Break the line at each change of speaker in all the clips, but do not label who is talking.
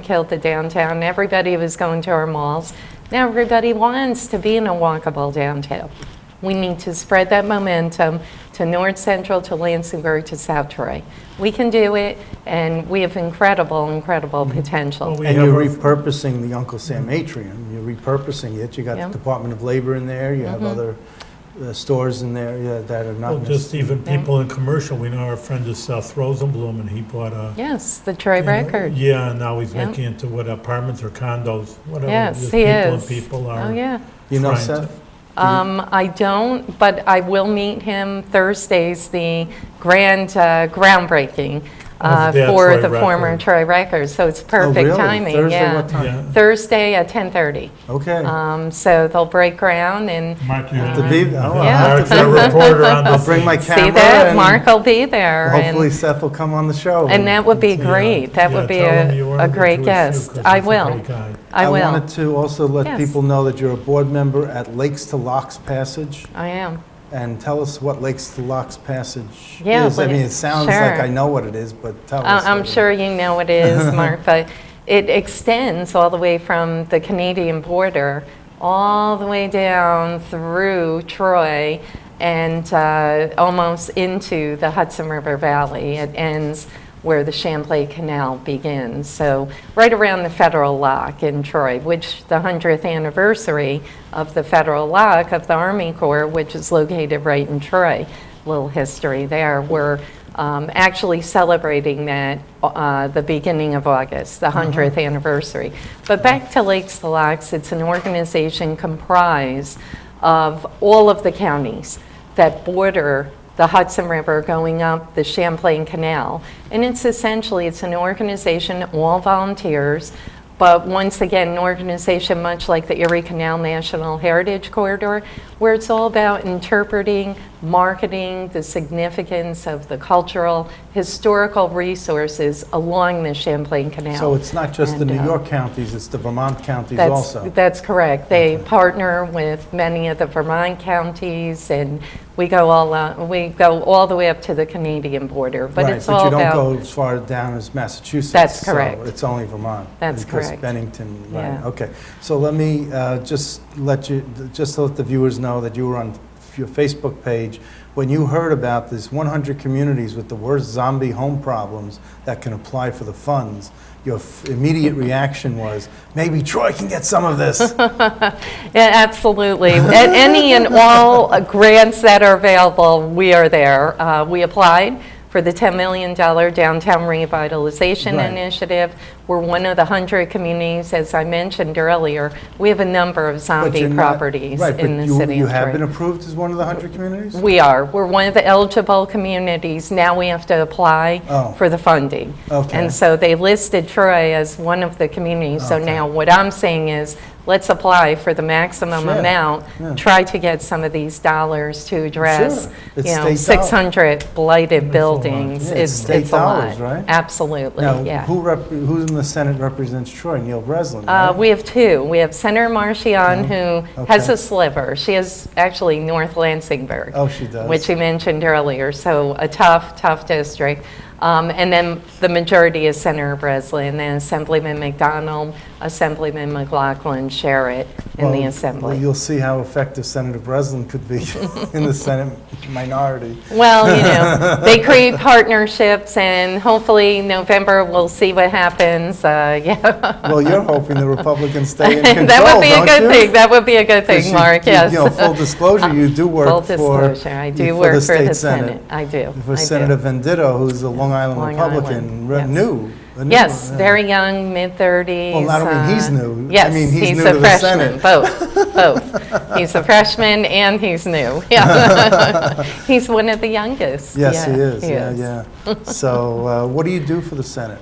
killed the downtown. Everybody was going to our malls. Now everybody wants to be in a walkable downtown. We need to spread that momentum to North Central, to Lansingburg, to South Troy. We can do it, and we have incredible, incredible potential.
Mm-hmm. Oh, We
And
have
you're
a-
repurposing the Uncle Sam atrium, you're repurposing it, you got
Yeah.
the Department of Labor in there, you have
Mm-hmm.
other uh, stores in there yeah, that are
Well,
not
just even
necessarily.
people in commercial, we know our friend is Seth Rosenblum, and he bought a.
Yes, the Troy record.
Yeah, and now he's
Yeah.
making into what apartments or condos, whatever.
Yes,
just
he
people and
is.
People
Oh,
are
yeah.
You know
trying to-
Seth?
Um, I don't, but I will meet him Thursday's the grand uh, groundbreaking uh,
Of the
for
Troy
the former
Record. Oh,
Troy Records, so it's perfect
Oh, really?
timing.
Thursday,
yeah.
what time?
yeah.
Thursday at 10:30.
Okay.
Um, so they'll break ground and
Mark, you have
To be- oh, I'll
Yeah.
Mark's a reporter on the.
I'll bring my
scene.
see
camera
that
and
Mark will be there,
hopefully
and,
Seth will come on the show.
and that would be
Yeah,
great. That
uh, yeah,
would be
tell him you
a, a
wanted to
great
do
guest.
too, 'cause
I
he's a
will.
great guy.
I
I
will.
wanted to also
Yes.
let people know that you're a board member at Lakes to Locks Passage,
I am.
and tell us what Lakes to Locks Passage
Yeah,
is. I
what
mean,
it-
it sounds like
sure.
I know what it is, but tell us.
I- Uh, I'm
what it
sure
is.
you know it is, Mark, but it extends all the way from the Canadian border, all the way down through Troy and uh, almost into the Hudson River Valley. It ends where the Champlain Canal begins, so right around the Federal Lock in Troy, which the 100th anniversary of the Federal Lock of the Army Corps, which is located right in Troy little history there. We're um, actually celebrating that uh, the beginning of August, the 100th anniversary. But back to Lakes to Locks, it's an organization comprised of all of the counties that border the Hudson River going up the Champlain Canal. And it's essentially, it's an organization, all volunteers, but once again, an organization much like the Erie Canal National Heritage Corridor, where it's all about interpreting, marketing the significance of the cultural, historical resources along the Champlain Canal.
So it's not just the
And,
New
uh,
York counties, it's the Vermont counties
that's,
also.
That's correct. They partner with many of the Vermont counties, and we go all, uh, we go all the way up to the Canadian border. But
Right,
it's all
But you
about.
don't go as far down as Massachusetts.
That's
so
correct.
it's only Vermont.
That's
Because
correct.
Bennington, right,
Yeah.
okay. So let me uh, just let you, just to let the viewers know that you were on your Facebook page when you heard about this 100 communities with the worst zombie home problems that can apply for the funds. Your f- immediate reaction was, maybe Troy can get some of this.
Yeah, absolutely. A- Any and all uh, grants that are available, we are there. Uh, We applied for the $10 million Downtown Revitalization
Right.
Initiative. We're one of the 100 communities, as I mentioned earlier. We have a number of
But
zombie
you're not-
properties
right,
in the
but you-
city
you
of
have been
Troy.
approved as one of the 100 communities?
We are. We're one of the eligible communities. Now we have to apply
Oh.
for the funding.
Okay.
And so they listed Troy as one of the communities. So
Okay.
now what I'm saying is, let's apply for the maximum
Sure.
amount.
Yeah.
Try to get some of these dollars to address,
Sure.
you
It's
know,
state dollars.
600 blighted buildings.
Yeah,
It's,
it's state
it's a lot.
dollars, right?
Absolutely,
Now,
yeah.
who rep- who in the Senate represents Troy? Neil Breslin,
Uh,
right?
We have two. We have Senator Marchion, who has
Okay.
a sliver. She is actually North Lansingburg.
Oh, she does.
Which you mentioned earlier, so a tough, tough district. Um, And then the majority is Senator Breslin, then Assemblyman McDonald, Assemblyman McLaughlin, Sherritt in the
Well, well,
Assembly.
You'll see how effective Senator Breslin could be in the Senate minority.
Well, you know, they create partnerships, and hopefully November, we'll see what happens. Uh, Yeah,
Well, you're hoping the Republicans stay in control,
That would be a
don't
good
you?
thing. That would be a good
'Cause
thing,
you-
Mark,
you-
yes.
You know, full disclosure, you do
Full
work for...
disclosure, I
you-
do work for
state
the Senate. I do. I do.
For Senator Venditto, who's a Long Island
Long Island,
Republican, re-
yes.
new. a new
Yes,
one, yeah.
very young, mid-thirties. uh,
Well, I don't mean he's new. I
Yes,
mean, he's new
a
to the
freshman.
Senate.
Both, both. He's a freshman and he's new. Yeah, he's one of the youngest.
Yes, he is, yeah, yeah. So uh, what do you do for the Senate?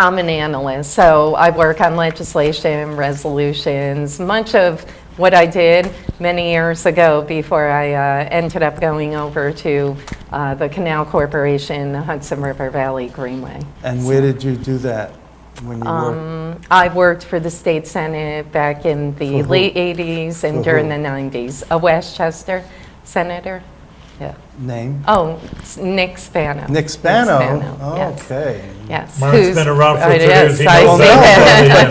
I'm an analyst, so I work on legislation, resolutions. Much of what I did many years ago before I uh, ended up going over to uh, the Canal Corporation, the Hudson River Valley Greenway.
And where did you do that when you worked?
Um, I worked for the state senate back in the
For who?
late 80s
For
and during the
who?
90s. A Westchester senator, yeah.
name?
Oh, s- Nick Spano.
Nick Spano? Oh,
yes.
Okay.
Yes.
Mark's
who's-
been around for
Right,
years, he
yes, I
knows
see
that.
that.